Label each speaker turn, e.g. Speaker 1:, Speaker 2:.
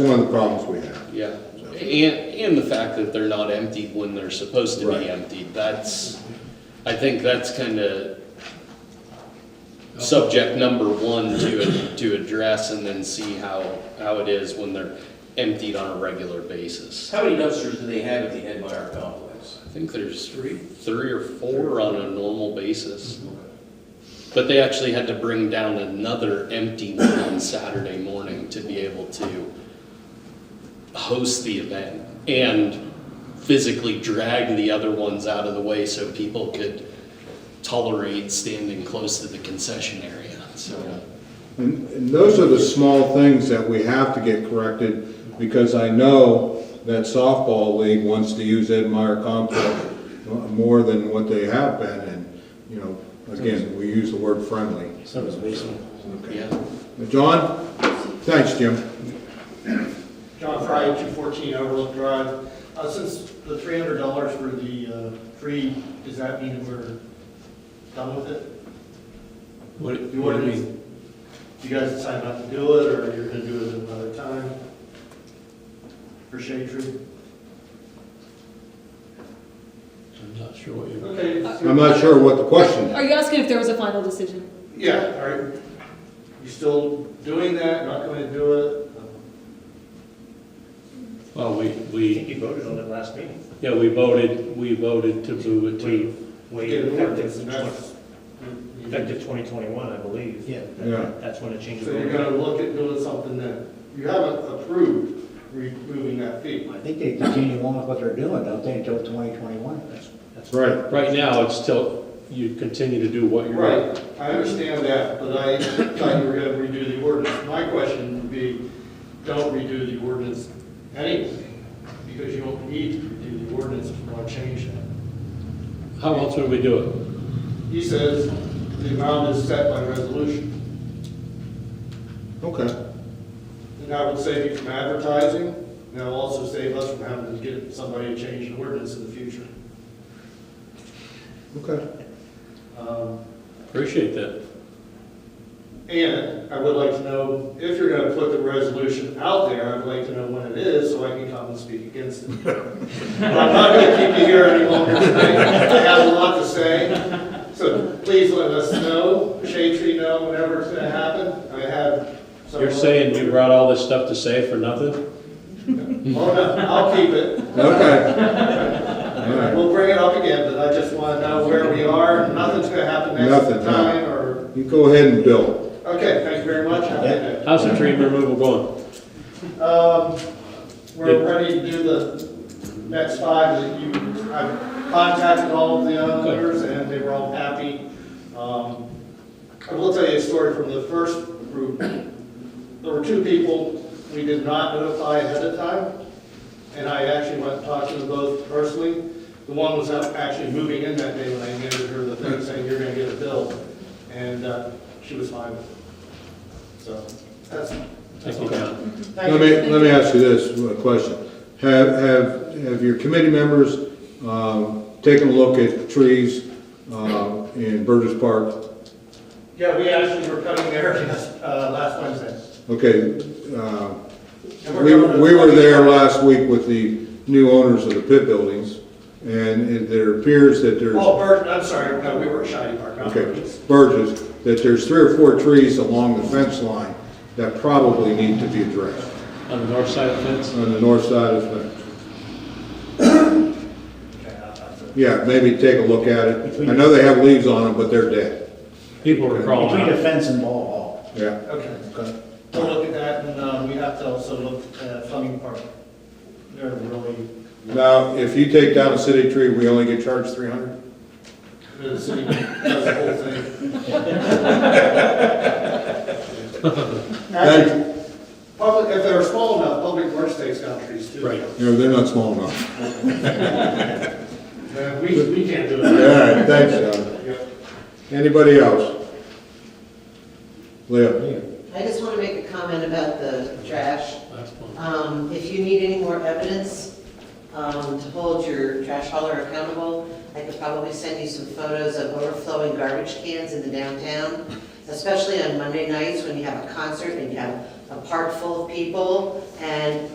Speaker 1: one of the problems we have.
Speaker 2: Yeah, and, and the fact that they're not emptied when they're supposed to
Speaker 1: Right.
Speaker 2: be emptied, that's, I think that's kind of subject number one to, to address and then see how, how it is when they're emptied on a regular basis.
Speaker 3: How many dumpsters do they have at the Ed Meyer complex?
Speaker 2: I think there's three, three or four on a normal basis. But they actually had to bring down another empty one on Saturday morning to be able to host the event and physically drag the other ones out of the way so people could tolerate standing close to the concession area, so.
Speaker 1: And and those are the small things that we have to get corrected, because I know that softball league wants to use Ed Meyer complex more than what they have been, and, you know, again, we use the word friendly.
Speaker 4: So does baseball.
Speaker 1: Okay.
Speaker 2: Yeah,
Speaker 1: John? Thanks, Jim.
Speaker 5: John Fry, 214 Overlook Drive. Uh, Since the $300 for the uh, free, does that mean we're done with it?
Speaker 4: What,
Speaker 5: You
Speaker 4: what do
Speaker 5: want
Speaker 4: you
Speaker 5: to,
Speaker 4: mean?
Speaker 5: do you guys decide not to do it, or you're going to do it another time? For shade tree?
Speaker 4: I'm not sure what you're.
Speaker 5: Okay.
Speaker 1: I'm not sure what the question is.
Speaker 6: Are you asking if there was a final decision?
Speaker 5: Yeah, are you still doing that, not going to do it?
Speaker 4: Well, we,
Speaker 7: I
Speaker 4: we,
Speaker 7: think you voted on it last meeting.
Speaker 4: yeah, we voted, we voted to move it to,
Speaker 7: Way
Speaker 5: Get an
Speaker 7: effective,
Speaker 5: ordinance,
Speaker 7: twen-
Speaker 5: and that's-
Speaker 7: effective twenty twenty-one, I believe. Yeah.
Speaker 1: Yeah.
Speaker 7: That's when it changes.
Speaker 5: So you're going to look at doing something then? You haven't approved removing that fee.
Speaker 8: I think they continue on with what they're doing, don't they, until 2021?
Speaker 7: That's- that's-
Speaker 1: Right,
Speaker 4: right now, it's still, you continue to do what you're.
Speaker 5: Right, I understand that, but I thought you were gonna redo the ordinance. My question would be, don't redo the ordinance anyway, because you don't need to redo the ordinance if you want to change that.
Speaker 4: How else would we do it?
Speaker 5: He says the amount is set by resolution,
Speaker 1: okay.
Speaker 5: and that would save you from advertising, and that'll also save us from having to get somebody to change the ordinance in the future.
Speaker 1: Okay.
Speaker 5: Um,
Speaker 4: Appreciate that.
Speaker 5: And I would like to know, if you're gonna put the resolution out there, I'd like to know when it is, so I can come and speak against it. But I'm not gonna keep you here any longer tonight, I have a lot to say, so please let us know, Shade Tree know whenever it's gonna happen, I have some.
Speaker 4: You're saying you brought all this stuff to say for nothing?
Speaker 5: Oh, no, I'll keep it,
Speaker 1: Okay. All right.
Speaker 5: we'll bring it up again, but I just wanna know where we are, nothing's gonna happen
Speaker 1: Nothing,
Speaker 5: next
Speaker 1: no.
Speaker 5: time, or,
Speaker 1: You go ahead and bill.
Speaker 5: okay, thank you very much, have a good day.
Speaker 4: How's the tree removal going?
Speaker 5: Um, we're ready to do the next five that you, I've contacted all of the owners and they were all happy. Um, I will tell you a story from the first group. There were two people we did not notify ahead of time. And I actually went and talked to them both personally. The one was out- actually moving in that day when I handed her the thing saying, you're gonna get a bill. And, uh, she was fine with it. So, that's,
Speaker 4: Thank you, John.
Speaker 5: thank you.
Speaker 1: Let me, let me ask you this uh, question. Have, have, have your committee members, um, taken a look at trees, um, in Burgess Park?
Speaker 5: Yeah, we actually were cutting there uh, last Wednesday.
Speaker 1: Okay, uh,
Speaker 5: And we're
Speaker 1: we,
Speaker 5: going to-
Speaker 1: we were there last week with the new owners of the pit buildings, and it, there appears that there's.
Speaker 5: Oh, Bert, I'm sorry, no, we were at Shiny Park, not
Speaker 1: Okay,
Speaker 5: Burgess.
Speaker 1: Burgess, that there's three or four trees along the fence line that probably need to be addressed
Speaker 4: On the north side of the fence?
Speaker 1: on the north side of the fence.
Speaker 5: Okay, uh, I- I-
Speaker 1: Yeah, maybe take a look at it. I know they have leaves on them, but they're dead.
Speaker 4: People are crawling
Speaker 8: Between
Speaker 4: out.
Speaker 8: the fence and ball hall.
Speaker 1: Yeah.
Speaker 5: Okay, we'll look at that, and um, we have to also look at Fleming Park. They're really,
Speaker 1: Now, if you take down a city tree, we only get charged three hundred?
Speaker 5: the city does the whole thing. Actually, public, if they're small enough, Public Works takes down trees too.
Speaker 4: Right.
Speaker 1: No, they're not small enough.
Speaker 5: Uh, We, we can't do
Speaker 1: All
Speaker 5: it.
Speaker 1: right, thanks, John.
Speaker 5: Yep.
Speaker 1: Anybody else? Leo?
Speaker 9: I just want to make a comment about the trash. Um, If you need any more evidence um, to hold your trash hauler accountable, I could probably send you some photos of overflowing garbage cans in the downtown, especially on Monday nights when you have a concert and you have a park full of people, and